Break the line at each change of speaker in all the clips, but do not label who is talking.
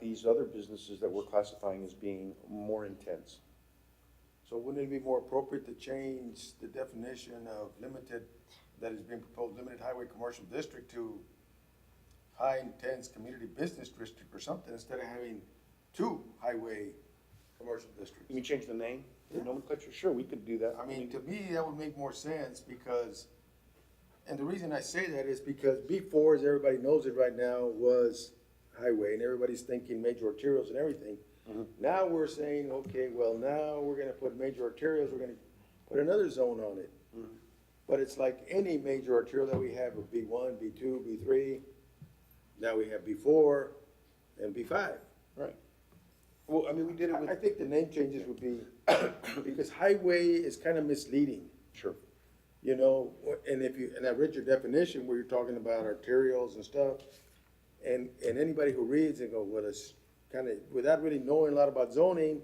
these other businesses that we're classifying as being more intense.
So wouldn't it be more appropriate to change the definition of limited, that is being proposed, limited highway commercial district to high intense community business district or something, instead of having two highway commercial
Let me
districts?
change the name, the nomenclature, sure, we could do that.
I mean, to me, that would make more sense because, and the reason I say that is because B four, as everybody knows it right now, was highway and everybody's thinking major arterials and everything. Now we're saying, okay, well, now we're gonna put major arterials, we're gonna put another zone on it. But it's like any major arterial that we have of B one, B two, B three, now we have B four and B five.
Right. Well, I mean, we did it
I I
with,
think the name changes would be, because highway is kind of misleading.
sure,
You know, and if you, and I read your definition where you're talking about arterials and stuff, and, and anybody who reads and go, well, it's kind of, without really knowing a lot about zoning,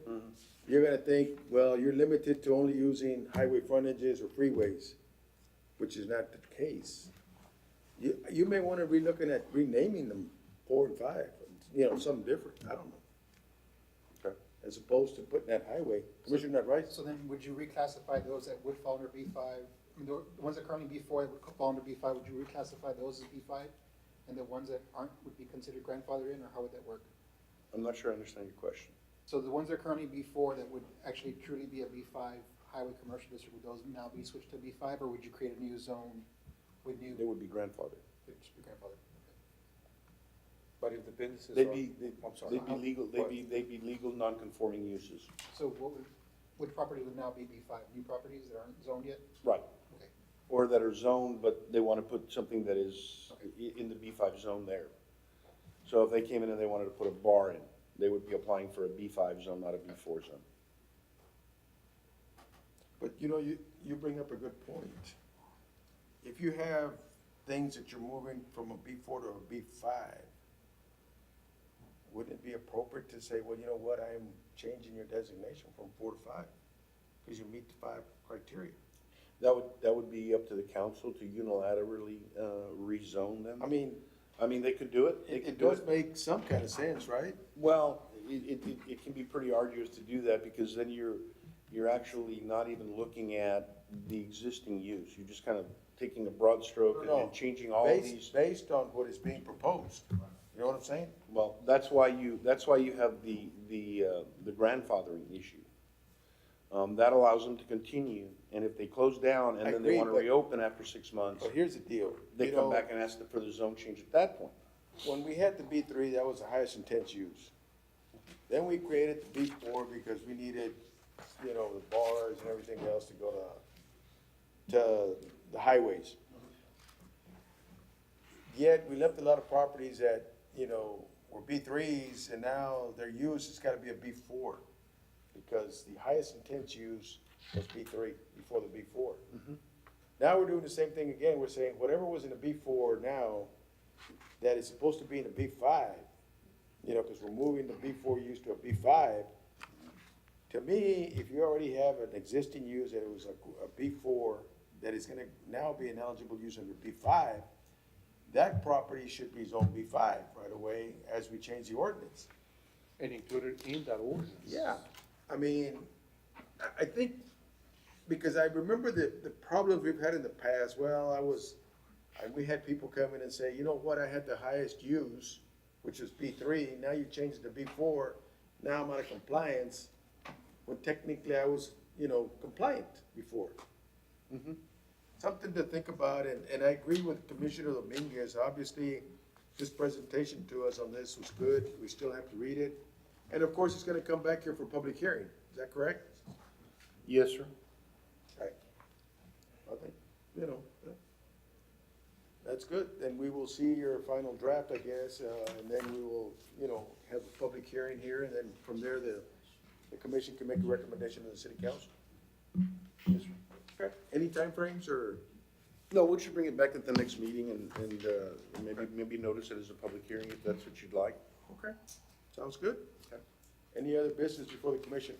you're gonna think, well, you're limited to only using highway frontages or freeways, which is not the case. You, you may wanna be looking at renaming them four and five, you know, something different, I don't know,
okay.
as opposed to putting that highway. Commissioner Rice?
So then would you reclassify those that would fall under B five, I mean, the ones that currently B four that would fall under B five, would you reclassify those as B five? And the ones that aren't would be considered grandfathered in, or how would that work?
I'm not sure I understand your question.
So the ones that are currently B four that would actually truly be a B five highway commercial district, would those now be switched to B five, or would you create a new zone with new,
They would be grandfathered.
which would be grandfathered?
But if the businesses
They'd be,
are,
they'd
I'm sorry.
they'd be legal, they'd be, they'd be legal, non-conforming uses.
So what would, which property would now be B five, new properties that aren't zoned yet?
Right.
Okay.
Or that are zoned, but they want to put something that is i- in the B five zone there. So if they came in and they wanted to put a bar in, they would be applying for a B five zone, not a B four zone.
But you know, you, you bring up a good point. If you have things that you're moving from a B four to a B five, wouldn't it be appropriate to say, well, you know what, I am changing your designation from four to five? Cause you meet the five criteria.
That would, that would be up to the council to unilaterally, uh, rezone them.
I mean,
I mean, they could do it, they
it,
could
it
do
does
it.
make some kind of sense, right?
Well, it, it, it- it can be pretty arduous to do that because then you're, you're actually not even looking at the existing use. You're just kind of taking a broad stroke and-
No,
and changing all of
based-
these.
Based on what is being proposed, you know what I'm saying?
Well, that's why you, that's why you have the, the, uh, the grandfathering issue. Um, that allows them to continue, and if they close down
I
and then they
agree,
wanna
but-
reopen after six months,
But here's the deal.
they
you
come
know,
back and ask for the zone change at that point.
When we had the B three, that was the highest intense use. Then we created the B four because we needed, you know, the bars and everything else to go to, to the highways. Yet, we left a lot of properties that, you know, were B threes, and now their use has gotta be a B four. Because the highest intense use was B three, before the B four. Now we're doing the same thing again, we're saying whatever was in the B four now, that is supposed to be in the B five, you know, because we're moving the B four use to a B five. To me, if you already have an existing use that it was a, a B four, that is gonna now be an eligible use under B five, that property should be zone B five right away as we change the ordinance.
And included in that ordinance.
Yeah, I mean, I, I think, because I remember the, the problems we've had in the past, well, I was, I, we had people come in and say, you know what, I had the highest use, which was B three, now you changed it to B four, now I'm out of compliance, when technically I was, you know, compliant before. Something to think about, and, and I agree with Commissioner Dominguez, obviously, this presentation to us on this was good, we still have to read it. And of course, it's gonna come back here for public hearing, is that correct?
Yes, sir.
Right. I think, you know, yeah. that's good, then we will see your final draft, I guess, uh, and then we will, you know, have a public hearing here, and then from there, the, the commission can make a recommendation to the city council. Yes, sir. Okay, any timeframes, or?
No, we should bring it back at the next meeting and, and, uh, maybe, maybe notice it as a public hearing if that's what you'd like.
Okay, sounds good.
Okay.
Any other business before the commission?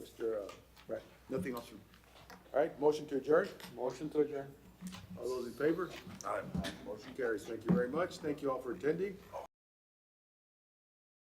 Mr. uh, Right,
Nothing else, sir.
all right, motion to adjourn?
Motion to adjourn.
All those in favor? Aye. Motion carries. Thank you very much. Thank you all for attending.